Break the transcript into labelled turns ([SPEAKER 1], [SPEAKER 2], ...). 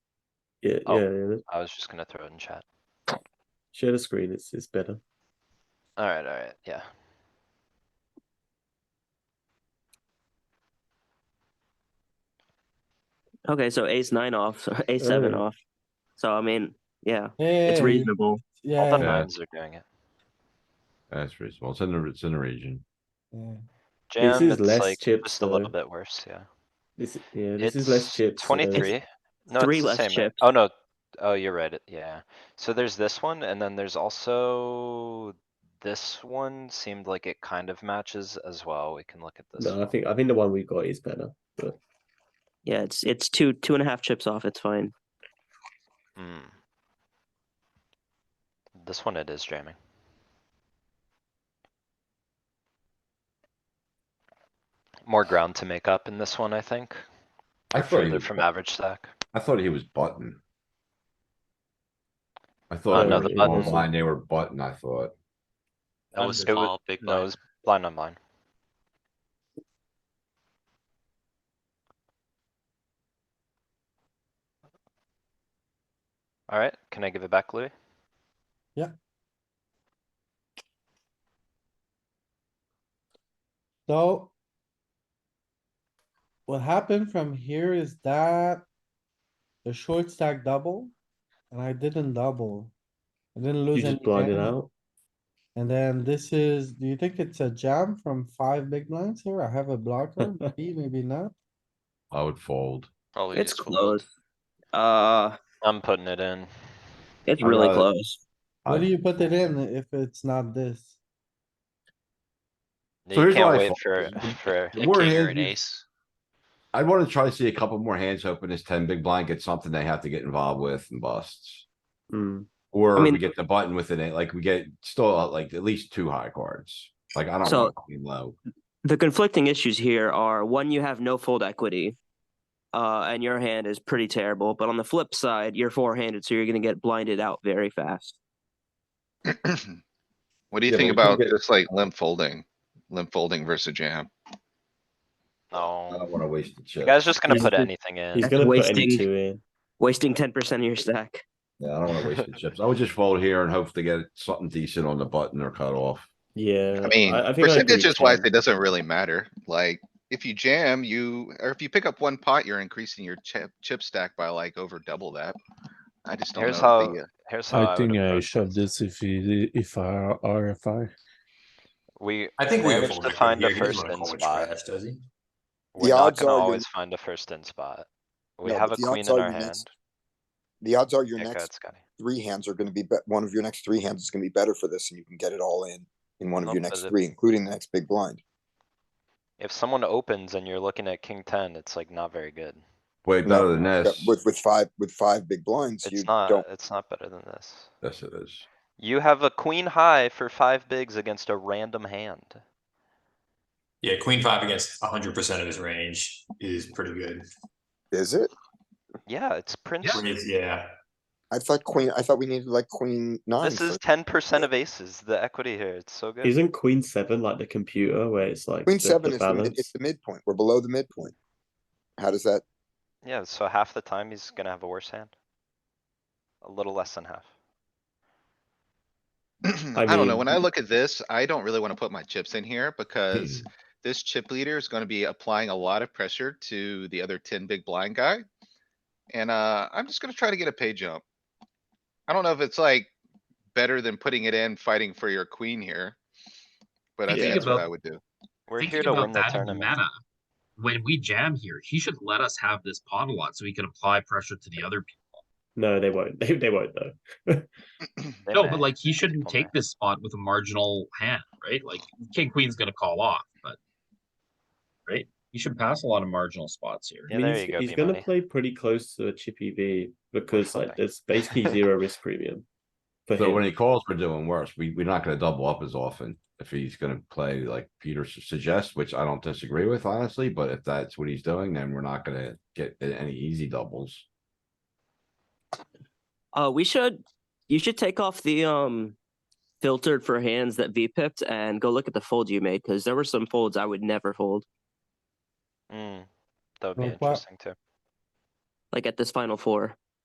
[SPEAKER 1] Yeah,
[SPEAKER 2] Oh.
[SPEAKER 1] yeah, yeah.
[SPEAKER 2] I was just gonna throw it in chat.
[SPEAKER 1] Share the screen. It's it's better.
[SPEAKER 2] Alright, alright, yeah.
[SPEAKER 3] Okay, so ace nine off, ace seven
[SPEAKER 1] Oh.
[SPEAKER 3] off. So I mean, yeah,
[SPEAKER 4] Yeah,
[SPEAKER 3] it's reasonable.
[SPEAKER 2] All the
[SPEAKER 4] Yeah,
[SPEAKER 5] Yeah.
[SPEAKER 2] nines are doing it.
[SPEAKER 5] That's reasonable. It's in the, it's in the region.
[SPEAKER 4] yeah.
[SPEAKER 1] This
[SPEAKER 2] Jam,
[SPEAKER 1] is
[SPEAKER 2] it's
[SPEAKER 1] less
[SPEAKER 2] like
[SPEAKER 1] chips,
[SPEAKER 2] just a little
[SPEAKER 1] though.
[SPEAKER 2] bit worse, yeah.
[SPEAKER 1] This yeah, this is
[SPEAKER 2] It's
[SPEAKER 1] less chips. uh,
[SPEAKER 2] Twenty-three. No,
[SPEAKER 3] three
[SPEAKER 2] it's the
[SPEAKER 3] less
[SPEAKER 2] same. right?
[SPEAKER 3] chips.
[SPEAKER 2] Oh, no. Oh, you're right. it- Yeah. So there's this one and then there's also this one seemed like it kind of matches as well. We can look at this.
[SPEAKER 1] no, I
[SPEAKER 2] one.
[SPEAKER 1] think I think the one we got is better.
[SPEAKER 3] Yeah, it's it's two two and a half chips off. It's fine.
[SPEAKER 2] Hmm. This one it is jamming. More ground to make up in this one, I think,
[SPEAKER 5] I thought, he
[SPEAKER 2] further
[SPEAKER 5] was,
[SPEAKER 2] from average stack.
[SPEAKER 5] I thought he was button. I
[SPEAKER 1] Uh,
[SPEAKER 5] thought.
[SPEAKER 1] no,
[SPEAKER 5] it was
[SPEAKER 1] the
[SPEAKER 5] all
[SPEAKER 1] buttons-
[SPEAKER 5] Blind, they were button, I thought.
[SPEAKER 6] Oh,
[SPEAKER 7] That was
[SPEAKER 2] It wa-
[SPEAKER 7] small, big
[SPEAKER 2] No, it
[SPEAKER 7] blind.
[SPEAKER 2] was blind on blind. Alright, can I give it back, Louis?
[SPEAKER 4] So. What happened from here is that. The short stack double. And I didn't double. I didn't
[SPEAKER 1] You
[SPEAKER 4] lose any.
[SPEAKER 1] just blinded
[SPEAKER 4] hand.
[SPEAKER 1] out.
[SPEAKER 4] And then this is, do you think it's a jam from five big blinds here? I have a blocker, maybe, maybe not.
[SPEAKER 5] I would fold.
[SPEAKER 7] Probably
[SPEAKER 3] It's
[SPEAKER 7] just
[SPEAKER 3] close. Uh,
[SPEAKER 2] I'm putting it in.
[SPEAKER 3] it's
[SPEAKER 5] I'd
[SPEAKER 3] really
[SPEAKER 5] rather-
[SPEAKER 3] close.
[SPEAKER 4] What do
[SPEAKER 5] I-
[SPEAKER 4] you put it in if it's not this?
[SPEAKER 5] So
[SPEAKER 2] You
[SPEAKER 5] here's what
[SPEAKER 2] can't
[SPEAKER 5] I
[SPEAKER 2] wait
[SPEAKER 5] thought.
[SPEAKER 2] for, for,
[SPEAKER 7] A
[SPEAKER 5] More
[SPEAKER 7] king or
[SPEAKER 5] hands
[SPEAKER 7] an
[SPEAKER 5] you-
[SPEAKER 7] ace.
[SPEAKER 5] I'd wanna try to see a couple more hands open as ten big blind gets something they have to get involved with and busts.
[SPEAKER 1] Mm.
[SPEAKER 5] Or
[SPEAKER 3] mean-
[SPEAKER 5] we get the button within it, like we get still uh, like at least two high cards. Like I don't
[SPEAKER 3] So-
[SPEAKER 5] want queen low.
[SPEAKER 3] The conflicting issues here are one, you have no fold equity, uh, and your hand is pretty terrible. But on the flip side, you're four handed, so you're going to get blinded out very fast.
[SPEAKER 5] Yeah, but
[SPEAKER 8] What do you think
[SPEAKER 5] we can
[SPEAKER 8] about
[SPEAKER 5] get-
[SPEAKER 8] just like limp folding? Limp folding versus jam?
[SPEAKER 5] I
[SPEAKER 2] no.
[SPEAKER 9] Oh,
[SPEAKER 5] don't wanna waste the
[SPEAKER 2] The
[SPEAKER 5] chip.
[SPEAKER 2] guy's just gonna
[SPEAKER 3] He's
[SPEAKER 2] put
[SPEAKER 3] the-
[SPEAKER 2] anything
[SPEAKER 1] He's
[SPEAKER 2] in.
[SPEAKER 3] That's
[SPEAKER 1] gonna put any
[SPEAKER 3] wasting-
[SPEAKER 1] two in.
[SPEAKER 3] Wasting ten percent of your stack.
[SPEAKER 5] Yeah, I don't wanna waste the chips. I would just fold here and hope to get something decent on the button or cut off.
[SPEAKER 1] Yeah.
[SPEAKER 5] Uh,
[SPEAKER 8] I mean,
[SPEAKER 1] think agree
[SPEAKER 8] percentages wise,
[SPEAKER 1] ten.
[SPEAKER 8] it doesn't really matter. Like, if you jam, you, or if you pick up one pot, you're increasing your chip, chip stack by like over double that. I just don't know.
[SPEAKER 2] Here's
[SPEAKER 8] if
[SPEAKER 2] how-
[SPEAKER 8] the, uh,
[SPEAKER 2] Here's how
[SPEAKER 10] I
[SPEAKER 2] Oh, I would
[SPEAKER 10] think I
[SPEAKER 2] approach
[SPEAKER 10] shove
[SPEAKER 2] this.
[SPEAKER 10] this if it, if I are RFI.
[SPEAKER 2] We
[SPEAKER 6] I think we
[SPEAKER 2] managed to
[SPEAKER 6] overlooked it
[SPEAKER 2] find
[SPEAKER 6] here.
[SPEAKER 2] a
[SPEAKER 6] He doesn't
[SPEAKER 2] first
[SPEAKER 6] wanna
[SPEAKER 2] in
[SPEAKER 6] call it
[SPEAKER 2] spot.
[SPEAKER 6] trash, does he?
[SPEAKER 2] We're
[SPEAKER 9] The
[SPEAKER 2] not
[SPEAKER 9] odds
[SPEAKER 2] gonna
[SPEAKER 9] are you-
[SPEAKER 2] always find a first in spot. We
[SPEAKER 9] No,
[SPEAKER 2] have a
[SPEAKER 9] but the
[SPEAKER 2] queen
[SPEAKER 9] odds
[SPEAKER 2] in
[SPEAKER 9] are
[SPEAKER 2] our
[SPEAKER 9] you
[SPEAKER 2] hand.
[SPEAKER 9] next- The odds are your
[SPEAKER 2] Yeah, go ahead,
[SPEAKER 9] next
[SPEAKER 2] Scotty.
[SPEAKER 9] three hands are gonna be, bet one of your next three hands is gonna be better for this and you can get it all in, in one of
[SPEAKER 2] Nope,
[SPEAKER 9] your
[SPEAKER 2] does
[SPEAKER 9] next
[SPEAKER 2] it-
[SPEAKER 9] three, including the next big blind.
[SPEAKER 2] If someone opens and you're looking at king ten, it's like not very good.
[SPEAKER 5] Way
[SPEAKER 9] No,
[SPEAKER 5] better than
[SPEAKER 9] But
[SPEAKER 5] this.
[SPEAKER 9] With, with five, with five big blinds, you
[SPEAKER 2] It's
[SPEAKER 9] don't,
[SPEAKER 2] not, it's not better than this.
[SPEAKER 5] Yes, it is.
[SPEAKER 2] You have a queen high for five bigs against a random hand.
[SPEAKER 6] Yeah, queen five against hundred percent of his range is pretty good.
[SPEAKER 9] is it?
[SPEAKER 2] Yeah, it's Prince.
[SPEAKER 6] Raise- Yeah,
[SPEAKER 9] I thought queen, I thought we needed like queen nine.
[SPEAKER 2] This
[SPEAKER 9] for-
[SPEAKER 2] is ten percent of aces, the equity here. It's so good.
[SPEAKER 1] Isn't Queen Seven like the computer where it's like
[SPEAKER 9] Queen
[SPEAKER 1] the- the
[SPEAKER 9] seven is, the mid-
[SPEAKER 1] balance?
[SPEAKER 9] it's the midpoint. We're below the midpoint. How does that,
[SPEAKER 2] Yeah, so half the time he's gonna have a worse hand. A little less than half.
[SPEAKER 1] I
[SPEAKER 8] I don't know.
[SPEAKER 1] mean-
[SPEAKER 8] When I look at this, I don't really wanna put my chips in here because this chip leader is gonna be applying a lot of pressure to the other ten big blind guy. And, uh, I'm just gonna try to get a pay jump. I don't know if it's like better than putting it in, fighting for your queen here. But I think
[SPEAKER 7] Thinking
[SPEAKER 8] that's what
[SPEAKER 7] about-
[SPEAKER 8] I would do.
[SPEAKER 2] We're
[SPEAKER 7] Thinking
[SPEAKER 2] here to
[SPEAKER 7] about
[SPEAKER 2] win the
[SPEAKER 7] that in
[SPEAKER 2] tournament.
[SPEAKER 7] meta, When we jam here, he should let us have this pot a lot so he can apply pressure to the other people.
[SPEAKER 1] No, they won't. They, they won't though.
[SPEAKER 2] They
[SPEAKER 7] No,
[SPEAKER 2] may.
[SPEAKER 7] but like he shouldn't
[SPEAKER 2] People may.
[SPEAKER 7] take this spot with a marginal hand, right? Like king queen's gonna call off, but right, he should pass a lot of marginal spots here.
[SPEAKER 2] Yeah,
[SPEAKER 1] I mean,
[SPEAKER 2] there
[SPEAKER 1] he's,
[SPEAKER 2] you go,
[SPEAKER 1] he's gonna
[SPEAKER 2] B-Money.
[SPEAKER 1] play pretty close to a chippy V because like
[SPEAKER 2] fine.
[SPEAKER 1] there's basically zero risk premium. For
[SPEAKER 5] So
[SPEAKER 1] him.
[SPEAKER 5] when he calls, we're doing worse. We, we're not gonna double up as often if he's gonna play like Peter su- suggests, which I don't disagree with honestly, but if that's what he's doing, then we're not gonna get a- any easy doubles.
[SPEAKER 3] Uh, we should. You should take off the um filtered for hands that V pipped and go look at the fold you made because there were some folds I would never fold.
[SPEAKER 2] Mm, that would be
[SPEAKER 4] Like what?
[SPEAKER 2] interesting too.
[SPEAKER 3] Like at this final four.